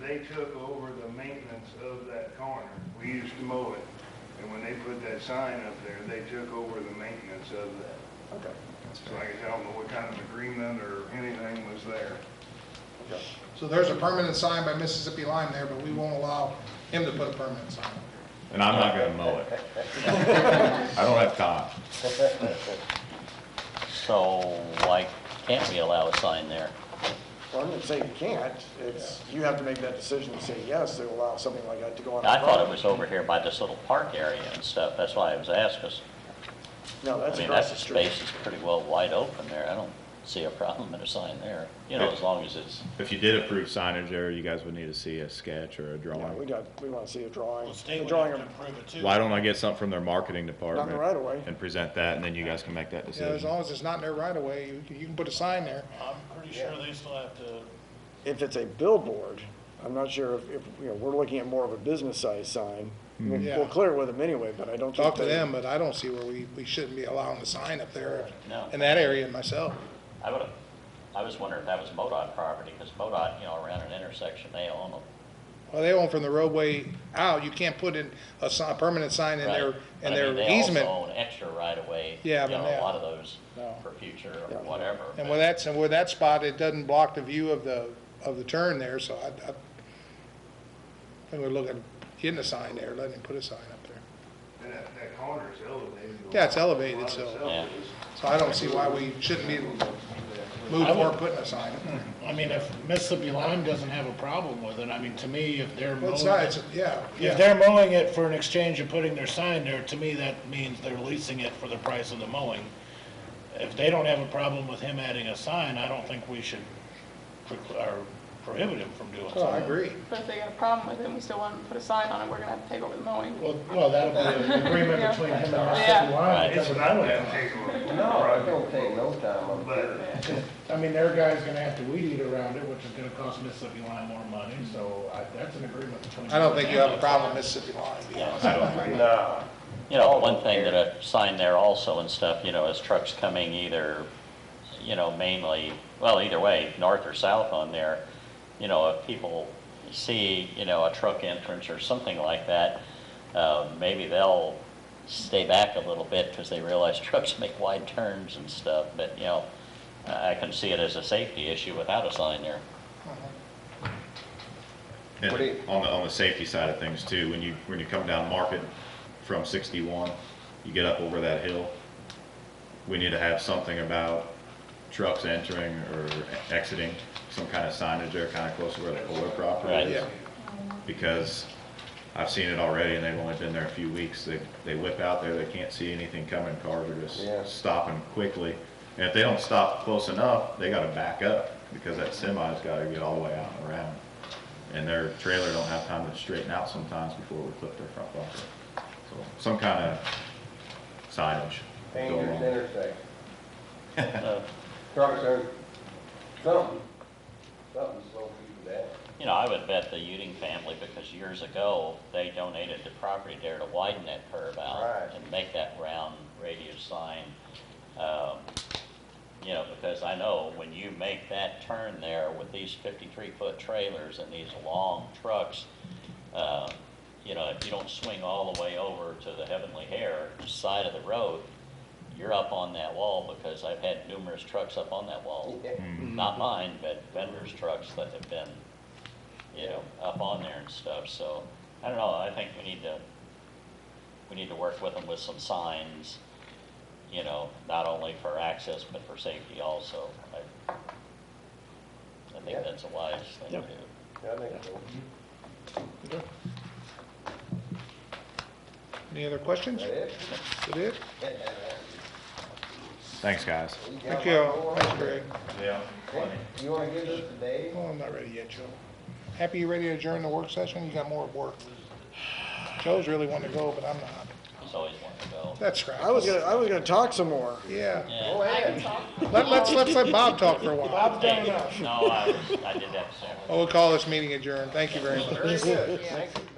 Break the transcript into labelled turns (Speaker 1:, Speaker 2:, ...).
Speaker 1: they took over the maintenance of that corner. We used to mow it. And when they put that sign up there, they took over the maintenance of that.
Speaker 2: Okay.
Speaker 1: So like I said, I don't know what kind of agreement or anything was there.
Speaker 2: Okay.
Speaker 3: So there's a permanent sign by Mississippi Lime there, but we won't allow him to put a permanent sign.
Speaker 4: And I'm not gonna mow it. I don't have time.
Speaker 5: So why can't we allow a sign there?
Speaker 2: Well, I'm gonna say you can't, it's, you have to make that decision to say yes, to allow something like that to go on.
Speaker 5: I
Speaker 2: the
Speaker 5: thought it
Speaker 2: property.
Speaker 5: was over here by this little park area and stuff, that's why I was asking.
Speaker 2: No,
Speaker 5: I
Speaker 2: that's
Speaker 5: mean,
Speaker 2: across
Speaker 5: that
Speaker 2: the street.
Speaker 5: space is pretty well wide open there, I don't see a problem in a sign there, you know, as long as it's,
Speaker 4: If you did approve signage there, you guys would need to see a sketch or a
Speaker 2: Yeah, we
Speaker 4: drawing.
Speaker 2: got, we wanna see a drawing.
Speaker 6: Well, state
Speaker 2: A
Speaker 6: would
Speaker 2: drawing
Speaker 6: have to
Speaker 2: of-
Speaker 6: approve it too.
Speaker 4: Why don't I get something from their marketing department?
Speaker 2: right away.
Speaker 4: And present that, and then you guys can make that
Speaker 3: Yeah, as
Speaker 4: decision.
Speaker 3: long as it's not in their right of way, you, you can put a sign there.
Speaker 6: I'm pretty sure they still have to,
Speaker 2: If it's a billboard, I'm not sure if, if, you know, we're looking at more of a business size sign. I mean,
Speaker 3: Yeah.
Speaker 2: We'll clear it with them anyway, but I don't think.
Speaker 3: Hmm. Talk to
Speaker 2: they-
Speaker 3: them, but I don't see where we, we shouldn't be allowing a sign up there
Speaker 5: No.
Speaker 3: in that area myself.
Speaker 5: I would have, I was wondering if that was MoDOT property, because MoDOT, you know, around an intersection, they own them.
Speaker 3: Well, they own from the roadway out, you can't put in a si- a permanent sign in
Speaker 5: right?
Speaker 3: their,
Speaker 5: But
Speaker 3: in
Speaker 5: I mean,
Speaker 3: their easement.
Speaker 5: They also own extra right of way, you
Speaker 3: Yeah,
Speaker 5: know,
Speaker 3: but yeah.
Speaker 5: a lot of those
Speaker 3: No.
Speaker 5: for future
Speaker 2: Yeah.
Speaker 5: or whatever.
Speaker 3: And
Speaker 5: but-
Speaker 3: where that's, and where that spot, it doesn't block the view of the, of the turn there, so I, I think we're looking, getting a sign there, letting him put a sign up there.
Speaker 1: And that, that corner is elevated.
Speaker 3: Yeah, it's elevated,
Speaker 1: A lot of
Speaker 3: so-
Speaker 1: it's
Speaker 5: Yeah.
Speaker 1: elevated.
Speaker 3: So I don't see why we shouldn't be able to move forward putting a sign up there.
Speaker 6: I mean, if Mississippi Lime doesn't have a problem with it, I mean, to me, if they're mowing
Speaker 3: Both sides,
Speaker 6: it,
Speaker 3: yeah,
Speaker 6: if
Speaker 3: yeah.
Speaker 6: they're mowing it for an exchange of putting their sign there, to me, that means they're leasing it for the price of the mowing. If they don't have a problem with him adding a sign, I don't think we should preclu- or prohibit him from doing
Speaker 3: Oh, I
Speaker 6: so.
Speaker 3: agree.
Speaker 7: But if they got a problem with it, and we still want to put a sign on it, we're gonna have to take over the mowing.
Speaker 6: Well, well, that'll be an agreement between him and Mississippi Lime.
Speaker 5: Right.
Speaker 6: because
Speaker 1: It's
Speaker 6: if
Speaker 1: not
Speaker 6: they don't
Speaker 1: that
Speaker 6: have-
Speaker 1: big of a
Speaker 8: No, I
Speaker 1: project,
Speaker 8: don't take no time on
Speaker 1: but
Speaker 6: I mean, their guy's gonna have to weed eat around it, which is gonna cost Mississippi Lime more money, so I, that's an agreement between.
Speaker 3: I don't think you have a problem with Mississippi Line, to be honest.
Speaker 4: I don't
Speaker 8: it. Nah.
Speaker 5: You know, one thing that a sign there also and stuff, you know, is trucks coming either, you know, mainly, well, either way, north or south on there, you know, if people see, you know, a truck entrance or something like that, uh, maybe they'll stay back a little bit because they realize trucks make wide turns and stuff, but, you know, I I can see it as a safety issue without a sign there.
Speaker 4: And
Speaker 8: What do you-
Speaker 4: on the, on the safety side of things too, when you, when you come down Market from sixty-one, you get up over that hill, we need to have something about trucks entering or exiting, some kind of signage there, kind of close to where the Kohler property
Speaker 5: Right.
Speaker 4: is. Because I've seen it already and they've only been there a few weeks, they, they whip out there, they can't see anything coming, cars are
Speaker 8: Yeah.
Speaker 4: just stopping quickly. And if they don't stop close enough, they gotta back up, because that semi's gotta get all the way out and around and their trailer don't have time to straighten out sometimes before we clip their front bumper. So some kind of signage. to go
Speaker 8: Dangerous
Speaker 4: along.
Speaker 8: intersection.
Speaker 5: Uh,
Speaker 8: Trucks are, something, something slow people down.
Speaker 5: You know, I would bet the Uding family, because years ago, they donated the property there to widen that curve out
Speaker 8: Right.
Speaker 5: and make that round radius sign. Um, You know, because I know when you make that turn there with these fifty-three foot trailers and these long trucks, uh, you know, if you don't swing all the way over to the Heavenly Hair side of the road, you're up on that wall, because I've had numerous trucks up on that wall.
Speaker 8: Yeah.
Speaker 5: Not mine, but vendors' trucks that have been you know, up on there and stuff, so, I don't know, I think we need to, we need to work with them with some signs, you know, not only for access, but for safety also. I I think that's a wise thing to
Speaker 2: Yep.
Speaker 5: do.
Speaker 8: I think so.
Speaker 3: Any other questions?
Speaker 8: That it?
Speaker 3: That it?
Speaker 4: Thanks, guys.
Speaker 8: You got
Speaker 3: Thank
Speaker 8: my
Speaker 3: you.
Speaker 8: boy?
Speaker 3: Thanks, Greg.
Speaker 4: Yeah.
Speaker 8: Hey, You wanna give this to Dave?
Speaker 3: Oh, I'm not ready yet, Joe. Happy you ready to adjourn the work session? You got more at work. Joe's really wanting to go, but I'm not.
Speaker 5: He's always wanted to go.
Speaker 3: That's right.
Speaker 2: I was gonna, I was gonna talk some more.
Speaker 3: Yeah.
Speaker 5: Yeah.
Speaker 8: Go ahead.
Speaker 3: Let, let's, let's let Bob talk for a while.
Speaker 5: Hey, No, I, was- I did that separate.
Speaker 3: Oh, we'll call this meeting adjourned. Thank you very much.
Speaker 8: Very good. Thank you,